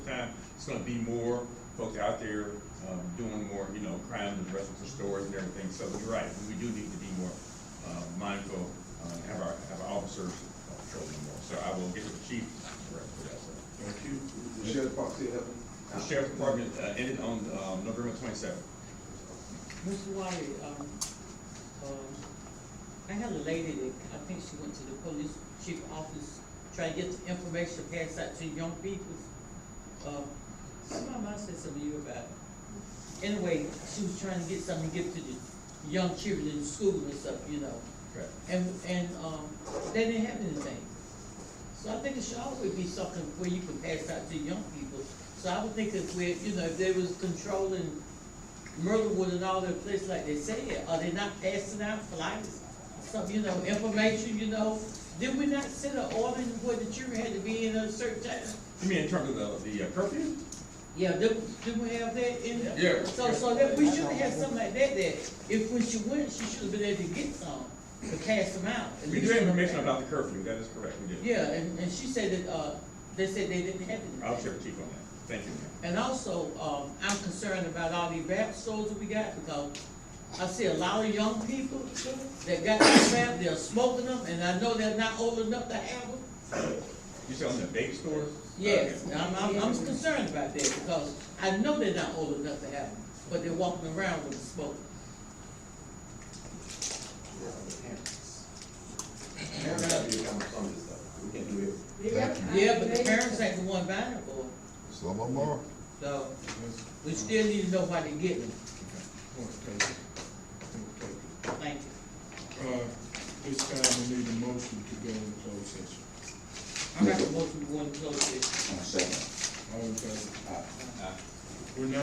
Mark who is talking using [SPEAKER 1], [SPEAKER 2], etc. [SPEAKER 1] It's gonna be more folks out there, um, doing more, you know, crime and the rest of the stores and everything, so you're right, we do need to be more, uh, mindful, uh, and have our, have our officers uh, patrolling more, so I will get the chief to correct for that, sir.
[SPEAKER 2] Thank you. The sheriff box here helping?
[SPEAKER 1] The sheriff's department, uh, ended on, um, November twenty-seventh.
[SPEAKER 3] Mr. Wiley, um, um, I had a lady that, I think she went to the police chief office, trying to get the information passed out to young people. Uh, my mom said something to you about it. Anyway, she was trying to get something to give to the young children in school and stuff, you know,
[SPEAKER 1] Correct.
[SPEAKER 3] and, and, um, they didn't have anything. So I think it should always be something where you can pass out to young people. So I would think if we, you know, if they was controlling Myrtlewood and all their places like they said, are they not passing out flyers? Some, you know, information, you know, did we not set an order where the children had to be in a certain time?
[SPEAKER 1] You mean in terms of the, the uh, curfew?
[SPEAKER 3] Yeah, did, did we have that in?
[SPEAKER 1] Yeah.
[SPEAKER 3] So, so that, we should have something like that, that if when she went, she should have been able to get some, to pass them out. at
[SPEAKER 1] We do
[SPEAKER 3] least-
[SPEAKER 1] have information about the curfew, that is correct, we do.
[SPEAKER 3] Uh, Yeah, and, and she said that, uh, they said they didn't have anything.
[SPEAKER 1] I'll check the chief on that, thank you, ma'am.
[SPEAKER 3] And also, um, I'm concerned about all these rap stores that we got, because I see a lot of young people that got this rap, they're smoking them, and I know they're not old enough to have them.
[SPEAKER 1] You said on the vape stores?
[SPEAKER 3] Yes,
[SPEAKER 1] Okay.
[SPEAKER 3] I'm, I'm, I'm concerned about that, because I know they're not old enough to have them, but they're walking around with the smoke.
[SPEAKER 2] Parents have to come up with this stuff. We can't do it.
[SPEAKER 3] Yeah, but the parents ain't the one buying it for them,
[SPEAKER 4] Some of them are.
[SPEAKER 3] so we still need to know why they get them, thank you.
[SPEAKER 5] Uh, This time we need a motion to go into closed session.
[SPEAKER 3] I make a motion to go into closed session.
[SPEAKER 5] All in favor?
[SPEAKER 1] Aye.
[SPEAKER 5] We're not